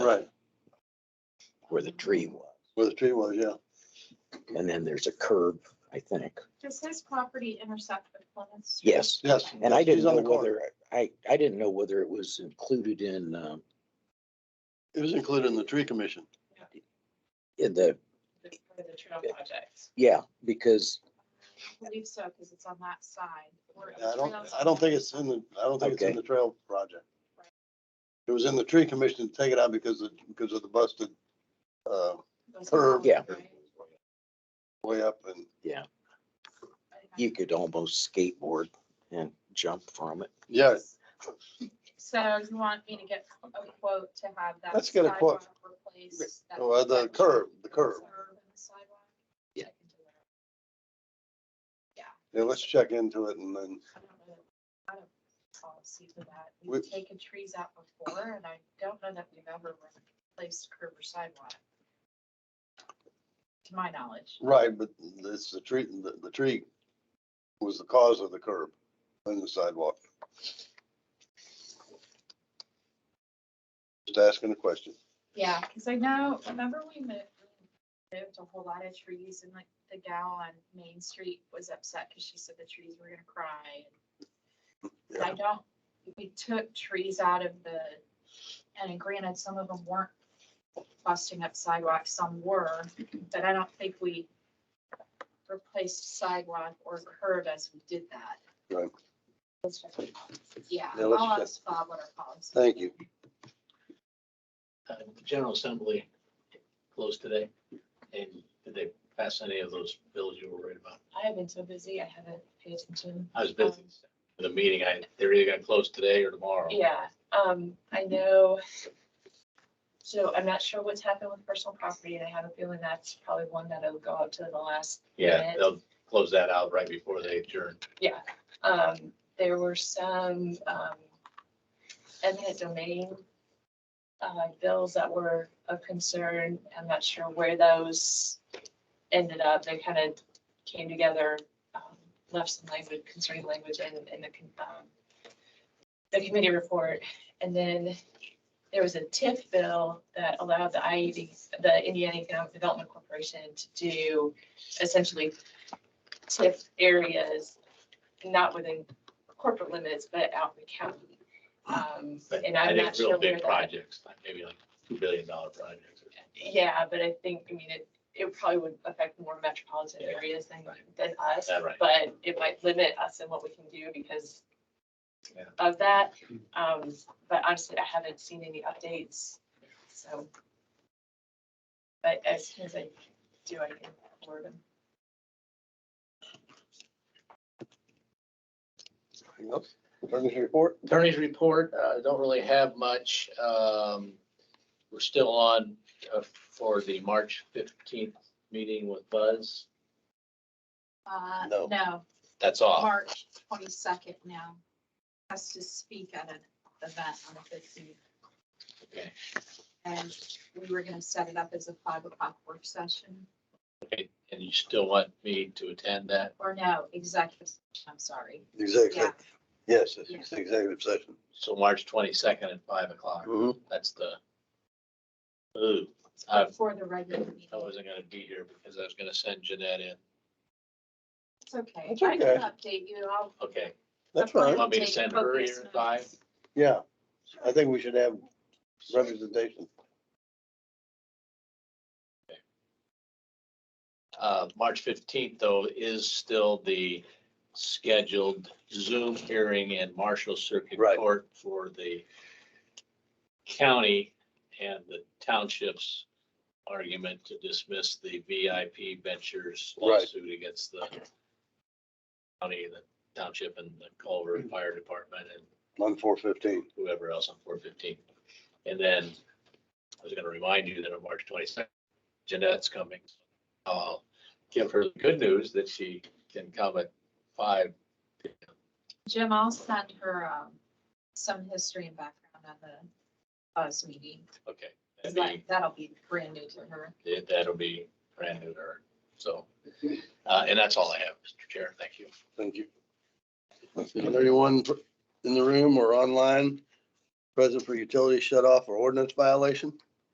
Right, where the tree was. where the tree was, yeah. And then there's a curb, I think. Does his property intersect with Plymouth Street? Yes. Yes. And I didn't she's on know the corner. whether, I, I didn't know whether it was included in, um, It was included in the tree commission. in the, For the trail project. yeah, because, I believe so, because it's on that side. Or I don't, trails- I don't think it's in the, I don't think it's in Okay. the trail project. It was in the tree commission to take it out because of, because of the busted, uh, Those curve. are- Yeah. right? way up and, yeah, I- I- you could almost skateboard and jump from it. yeah, So you want me to get a quote to have that. Let's get a quote. sidewalk replaced, that- well, the curb, the curb. curb and the sidewalk? Yeah. I can do that. Yeah, let's check into it and then, I don't know that we had a Policy for that. We- We've taken trees out before and I don't know that we've ever replaced curb or sidewalk. To my knowledge. right, but it's the tree, the, the tree was the cause of the curb and the sidewalk. Just asking a question. Yeah, because I know, remember we moved, moved a whole lot of trees and like the gal on Main Street was upset because she said the trees were gonna cry. And I don't, we took trees out of the, and granted, some of them weren't busting up sidewalks, some were, but I don't think we replaced sidewalk or curb as we did that. Right. Yeah, Yeah, let's I'll check. ask Bob what our policy. Thank you. uh, General Assembly closed today, and did they pass any of those bills you were worried about? I have been so busy, I haven't paid attention. I was busy for the meeting, I, they're either gonna close today or tomorrow. Um, Yeah, um, I know. So I'm not sure what's happened with personal property, and I have a feeling that's probably one that'll go up to the last. Yeah, minute. they'll close that out right before they adjourn. Yeah, um, there were some, um, eminent domain, uh, bills that were of concern. I'm not sure where those ended up. They kind of came together, um, left some language, concerning language in, in the, con- um, the committee report. And then there was a TIF bill that allowed the IED, the Indiana Economic Development Corporation to do essentially TIF areas not within corporate limits, but out in the county. Um, Hmm. But And I I'm think not real sure where big that. projects, like maybe like two billion dollar projects. Yeah, but I think, I mean, it, it probably would affect more metropolitan Yeah. areas than, than us. Yeah, right. But it might limit us in what we can do because Yeah. of that. Um, but honestly, I haven't seen any updates, so. But as soon as I do, I can forward them. Anything else? Attorney's report? Attorney's report, uh, don't really have much. Um, we're still on uh, for the March fifteenth meeting with Buzz. Uh, No. no, That's all. March twenty-second now. Has to speak at an event on the fifteenth. Okay. And we were gonna set it up as a five o'clock work session. Okay, and you still want me to attend that? Or no, executive, session, I'm sorry. Exactly. Yeah, Yes, Yeah. it's executive session. So March twenty-second at five o'clock, Mm-hmm. that's the. Ooh, I, before the regular meeting. I wasn't gonna be here because I was gonna send Jeanette in. It's okay. It's I can okay. update you. I'll. Okay, That's I'll right. Want me to take send her focus here at five? notes. Yeah, I think we should have representation. uh, March fifteenth though is still the scheduled Zoom hearing in Marshall Circuit Right. Court for the county and the township's argument to dismiss the VIP Ventures Right. lawsuit against the county, the township and the Culver Fire Department and On four fifteen. whoever else on four fifteen. And then I was gonna remind you that on March twenty-second, Jeanette's coming. I'll give her the good news that she can come at five. Jim, I'll send her um, some history and background on the buzz meeting. Okay. 'cause that'd that- be- That'll be brand new to her. that- That'll be brand new to her. So, uh, and that's all I have, Mr. Chair. Thank you. Thank you. Is there anyone in the room or online present for utility shut off or ordinance violation?